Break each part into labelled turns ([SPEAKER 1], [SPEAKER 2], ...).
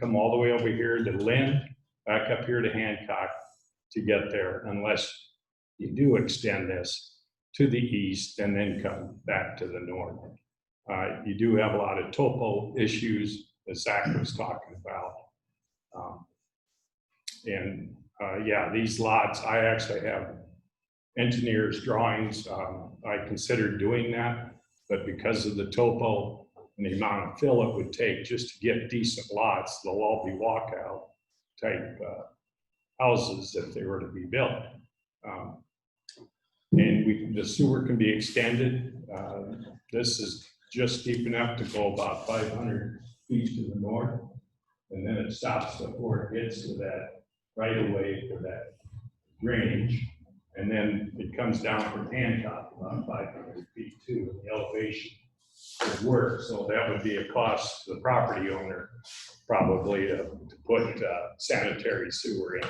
[SPEAKER 1] come all the way over here to Lynn, back up here to Hancock to get there unless you do extend this to the east and then come back to the north. Uh, You do have a lot of topo issues that Zach was talking about. Um, And, uh, yeah, these lots, I actually have engineers' drawings. Um, I considered doing that, but because of the topo and the amount of fill it would take just to get decent lots, they'll all be walkout type uh, houses if they were to be built. Um, And we, the sewer can be extended. Uh, This is just deep enough to go about 500 feet to the north. And then it stops before it gets to that right of way for that range. And then it comes down from Hancock about 500 feet too, and the elevation would work. So that would be a cost to the property owner probably to to put uh, sanitary sewer in.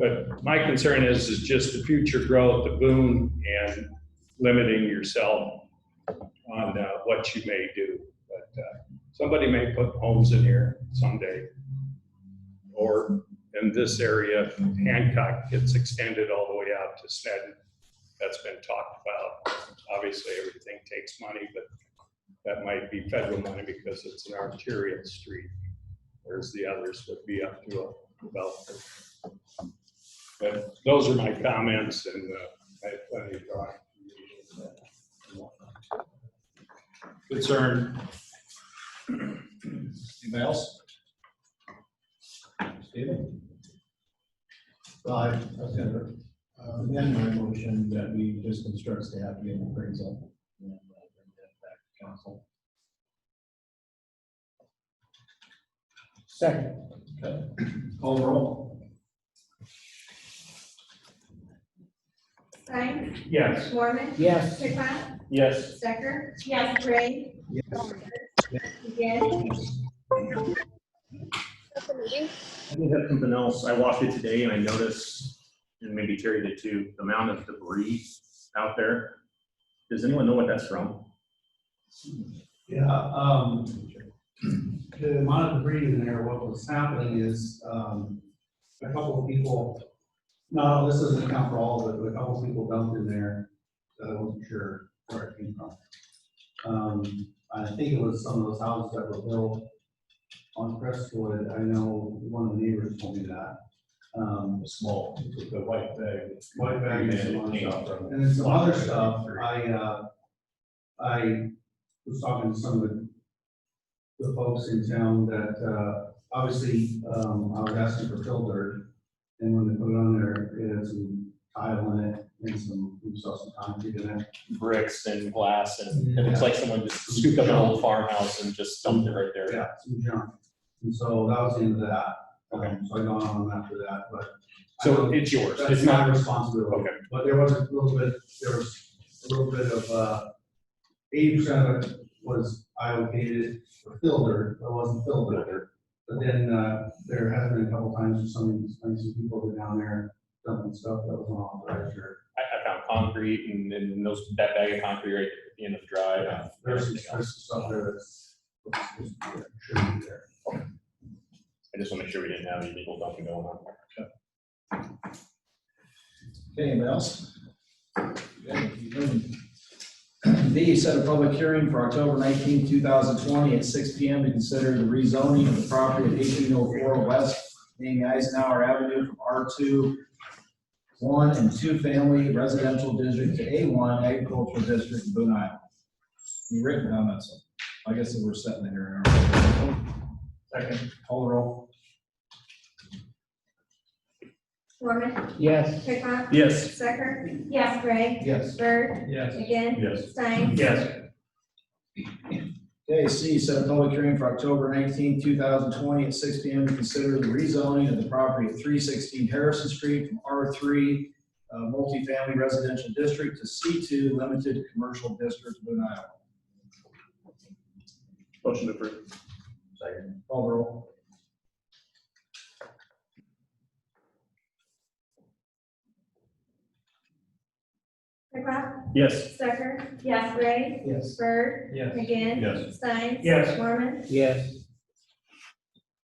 [SPEAKER 1] But my concern is, is just the future growth, the boom, and limiting yourself on uh, what you may do. But uh, somebody may put homes in here someday. Or in this area, Hancock gets extended all the way out to Sneddon. That's been talked about. Obviously, everything takes money, but that might be federal money because it's an arterial street. Whereas the others would be up to a developer. But those are my comments and uh, I have plenty of time. Concern.
[SPEAKER 2] Anybody else? Stephen?
[SPEAKER 3] Well, I I was gonna uh, amend my motion that we just instruct staff to get an appraisal. and, uh, bring that back to Council. Second.
[SPEAKER 2] Call the roll.
[SPEAKER 4] Stein,
[SPEAKER 1] Yes.
[SPEAKER 4] Mormon,
[SPEAKER 3] Yes.
[SPEAKER 4] Pickon,
[SPEAKER 1] Yes.
[SPEAKER 4] Stecker. Yes. Ray.
[SPEAKER 3] Yes.
[SPEAKER 4] Again,
[SPEAKER 5] I did have something else. I walked it today and I noticed, and maybe Terry did too, the amount of debris out there. Does anyone know what that's from?
[SPEAKER 3] Yeah, um, the amount of debris in there, what was happening is, um, a couple of people, no, this doesn't account for all of it, but a couple of people dumped in there, that I wasn't sure where it came from. Um, I think it was some of those houses that were built on Crestwood, I know one of the neighbors told me that. Um,
[SPEAKER 1] Small, the white bag.
[SPEAKER 3] White bag is
[SPEAKER 1] Yeah,
[SPEAKER 3] the one
[SPEAKER 1] it came
[SPEAKER 3] shop.
[SPEAKER 1] from-
[SPEAKER 3] And then some other stuff, I, uh, I was talking to some of the, the folks in town that, uh, obviously, um, I was asking for fill dirt. And when they put it on there, it had some tile in it and some, we saw some concrete in it.
[SPEAKER 5] Bricks and glass and it looks like someone just scooped up an old farmhouse and just dumped it right there.
[SPEAKER 3] Yeah, some junk. And so that was the end of that.
[SPEAKER 5] Okay.
[SPEAKER 3] Um, So I gone on after that, but. I
[SPEAKER 5] So
[SPEAKER 3] don't-
[SPEAKER 5] it's yours.
[SPEAKER 3] That's
[SPEAKER 5] It's not,
[SPEAKER 3] not responsibility.
[SPEAKER 5] Okay.
[SPEAKER 3] But there was a little bit, there was a little bit of, uh, eighty percent of it was allocated for filter, but it wasn't filter. But then, uh, there has been a couple times where some, of these- some of these people were down there dumping stuff that was unauthorized or.
[SPEAKER 5] I, I found concrete and, and those, that bag of concrete right at the end of the drive. and
[SPEAKER 3] There's some,
[SPEAKER 5] everything else.
[SPEAKER 3] there's some stuff there that's, that's supposed to be there, shouldn't be there.
[SPEAKER 5] I just want to make sure we didn't have any legal dumping going on.
[SPEAKER 2] Okay, anybody else? Okay, keep moving. D, set a public hearing for October 19, 2020 at 6 PM to consider the rezoning of the property at 1804 West Amy Eisenhower Avenue from R2, 1 and 2 family residential district to A1 agricultural district in Boone, Iowa. Any written comments? I guess that we're setting the hearing. aren't we? Second, call the roll.
[SPEAKER 4] Mormon,
[SPEAKER 6] Yes.
[SPEAKER 4] Pickon,
[SPEAKER 5] Yes.
[SPEAKER 4] Stecker. Yes. Ray,
[SPEAKER 2] Yes.
[SPEAKER 4] Bird,
[SPEAKER 6] Yes.
[SPEAKER 4] again,
[SPEAKER 1] Yes.
[SPEAKER 4] Stein.
[SPEAKER 5] Yes.
[SPEAKER 2] Okay, C, set a public hearing for October nineteenth, two thousand twenty, at six P M. to consider the rezoning of the property at three sixteen Harrison Street from R three uh, multifamily residential district to C two limited commercial district, Boone, Iowa.
[SPEAKER 5] Motion approved.
[SPEAKER 2] Second. Call the roll.
[SPEAKER 4] Pickon,
[SPEAKER 5] Yes.
[SPEAKER 4] Stecker. Yes. Ray,
[SPEAKER 2] Yes.
[SPEAKER 4] Bird,
[SPEAKER 6] Yes.
[SPEAKER 4] again,
[SPEAKER 1] Yes.
[SPEAKER 4] Stein.
[SPEAKER 6] Yes.
[SPEAKER 4] Mormon,
[SPEAKER 6] Yes.